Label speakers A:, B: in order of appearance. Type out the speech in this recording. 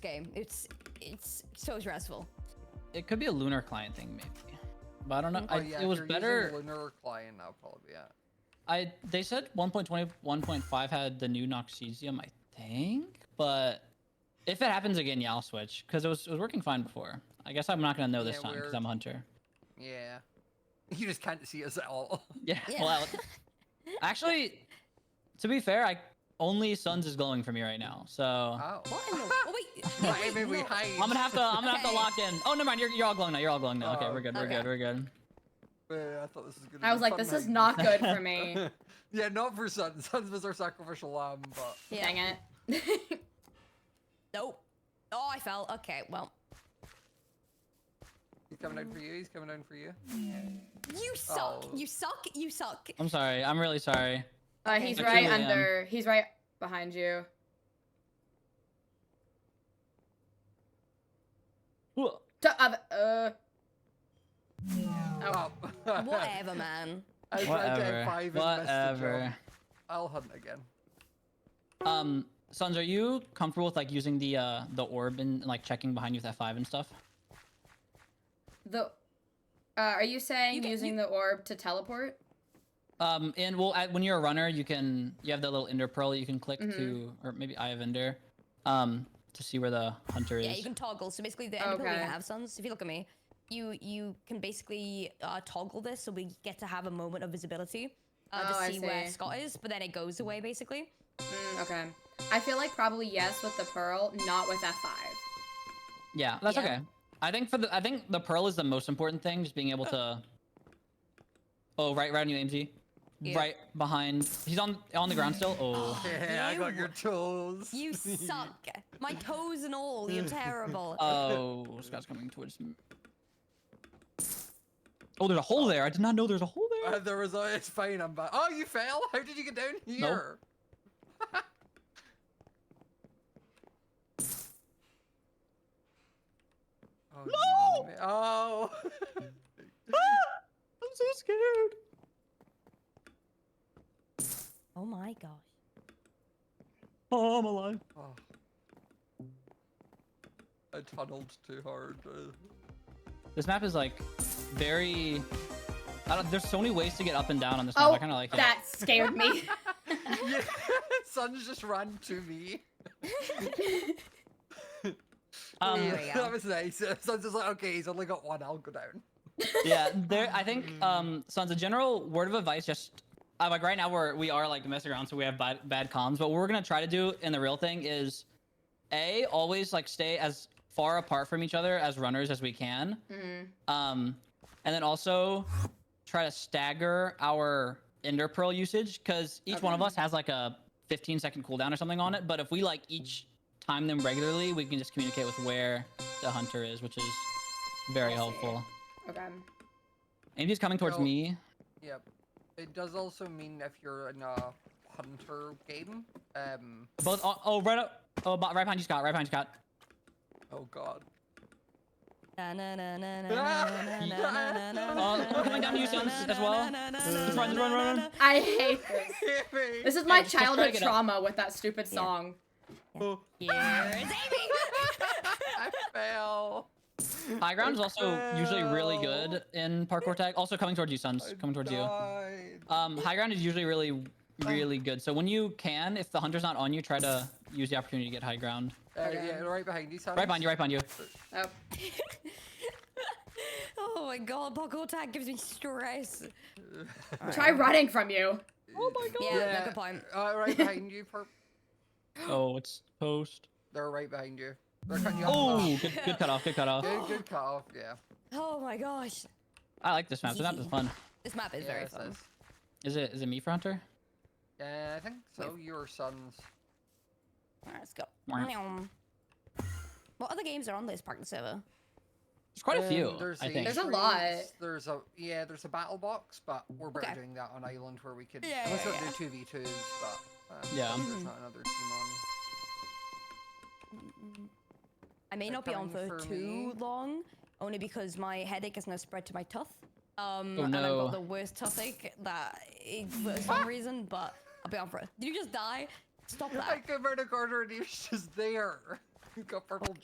A: game. It's it's so stressful.
B: It could be a lunar client thing, maybe. But I don't know.
A: Mhm.
B: I,
C: Oh, yeah, if
B: it was
C: you're
B: better.
C: Using Lunar client, that'll probably be it.
B: I they said 1.20, 1.5 had the new Noxesium, I think. But if it happens again, yeah, I'll switch because it was it was working fine before. I guess I'm not gonna know this
C: Yeah,
B: time because
C: we're-
B: I'm a hunter.
C: Yeah. You just can't see us at all.
B: Yeah.
A: Yeah.
B: Well, actually, to be fair, I only Suns is glowing for me right now, so
C: Oh.
A: What in the? Oh, wait.
C: Well,
A: wait,
C: maybe we
A: no.
C: hide.
B: I'm gonna have to I'm gonna have to
A: Okay.
B: lock in. Oh, never mind. You're you're all glowing now. You're all glowing now. okay,
C: Oh,
B: we're good. We're
A: okay.
B: good. We're good.
C: Yeah, I thought this was gonna.
D: I
C: be
D: was like,
C: fun
D: this is
C: night.
D: not good for me.
C: yeah, not for Sun. Suns was our sacrificial lamb, but
D: Dang it.
A: Nope. Oh, I fell. Okay, well.
C: he's coming down for you. He's coming down for you.
A: You suck.
C: Oh.
A: You suck. You suck.
B: I'm sorry. I'm really sorry.
D: Uh, he's
B: It's 2
D: right
B: a.m.
D: under. He's right behind you.
B: Whoa.
D: To, uh, uh, oh,
C: Oh.
A: Whatever, man.
C: I tried to have
B: Whatever.
C: five and messed the
B: Whatever.
C: job. I'll hunt again.
B: Um, Sons, are you comfortable with like using the uh the orb and like checking behind you with F5 and stuff?
D: the. Uh, are you saying
A: You can-
D: using
A: you-
D: the orb to teleport?
B: Um, and well, at, when you're a runner, you can you have that little Ender pearl that you can click to,
A: Mm-hmm.
B: or maybe Eye of Ender, um, to see where the hunter is.
A: Yeah, you can toggle. So basically, the enemy we
D: Okay.
A: have, sons. If you look at me, you you can basically uh, toggle this, so we get to have a moment of visibility uh,
D: Oh,
A: to
D: I
A: see, where
D: see.
A: Scott is, but then it goes away basically.
D: Mm, okay. I feel like probably yes with the pearl, not with F5.
B: Yeah, that's
A: Yeah.
B: okay. I think for the I think the pearl is the most important thing, just being able to. Oh, right, right on you, AMG.
A: Yeah.
B: Right behind. He's on on the ground still. Oh.
C: Yeah, I got your tools.
A: You suck. My toes and all. You're terrible.
D: Uh,
B: Oh, Scott's coming towards me. Oh, there's a hole there. I did not know there's a hole
C: Uh,
B: there.
C: there was a, it's fine, I'm back. Oh, you fell? How did you get down here? oh,
B: No!
C: no! Oh!
B: I'm so scared.
A: oh my gosh.
B: Oh, I'm alive.
C: Oh. I tunneled too hard. uh,
B: This map is like very. I don't, there's so many ways to get up and down on this map.
D: Oh,
B: I kind of like
D: that scared me.
C: yeah, Sun's just ran to me.
B: it.
C: Oh,
B: Um,
A: There we go.
C: that was nice. Sun's just like, okay, he's only got one, I'll go down.
B: yeah, there. I think um, so. As a general word of advice, just uh, like right now we're we are like messing around, so we have bad bad comms. But what we're gonna try to do in the real thing is, a always like stay as far apart from each other as runners as we can.
D: mm.
B: Um, and then also try to stagger our Ender Pearl usage because each one of
D: Okay.
B: us has like a 15 second cooldown or something on it. But if we like each time them regularly, we can just communicate with where the hunter is, which is very
D: I see.
B: helpful.
D: Okay.
B: Amy's coming towards
C: Well-
B: me.
C: Yep. It does also mean if you're in a hunter game, um,
B: Both. Oh, oh right up. Oh, bo- right behind you, Scott. Right behind you, Scott.
C: oh god.
A: Oh,
B: coming down to you, Sons, as well. Just run, run, run, run.
D: I hate this. This is my
B: just try to
D: childhood
B: get up.
D: trauma with that stupid song.
C: Oh,
A: Here's Amy.
C: I fell.
B: High ground is also usually really
C: Well.
B: good in parkour tag. Also coming towards you, Sons.
C: I
B: Coming towards you.
C: died.
B: Um, high ground is usually really, really good. So when you can, if the hunter's not on you, try to use the opportunity to get high ground.
C: Uh,
D: Okay.
C: yeah, right behind you, Sam.
B: Right behind you, right behind you.
D: Oh,
A: Oh my god, parkour tag gives me stress.
D: try running from you.
B: Oh my
A: Yeah, no, good point.
C: Uh, right behind you, Perp.
B: Oh, it's toast.
C: They're right behind you. They're cutting you off.
B: Oh, good, good cutoff, good cutoff.
C: Good, good cut off, yeah.
A: Oh my gosh.
B: I like this map. This map is fun.
A: This map is
C: yeah,
A: very
C: it's
A: fun.
C: nice.
B: Is it? Is it me for hunter?
C: Yeah, I think so. Your sons.
A: Alright, let's go.
B: Wah.
A: Meow. What other games are on this parking server?
B: There's quite a
C: Um,
B: few.
C: There's
B: I
C: the
B: think.
D: There's a lot.
C: entries, There's a yeah. There's a battle box, but we're better
A: Okay.
C: doing that on island where we could.
A: Yeah,
C: let's
A: yeah,
C: not
A: yeah.
C: do two v twos, but um,
B: Yeah.
C: There's not another team on.
A: I may
C: They're
A: not be on
C: coming
A: for
C: for
A: too
C: me.
A: long, only because my headache has now spread to my tooth. Um,
B: Oh
A: and I've
B: no.
A: got the worst toothache that it, for some reason, but I'll be on for it. Did you just die? Stop
C: I
A: that.
C: came around a corner and he was just there. Got purple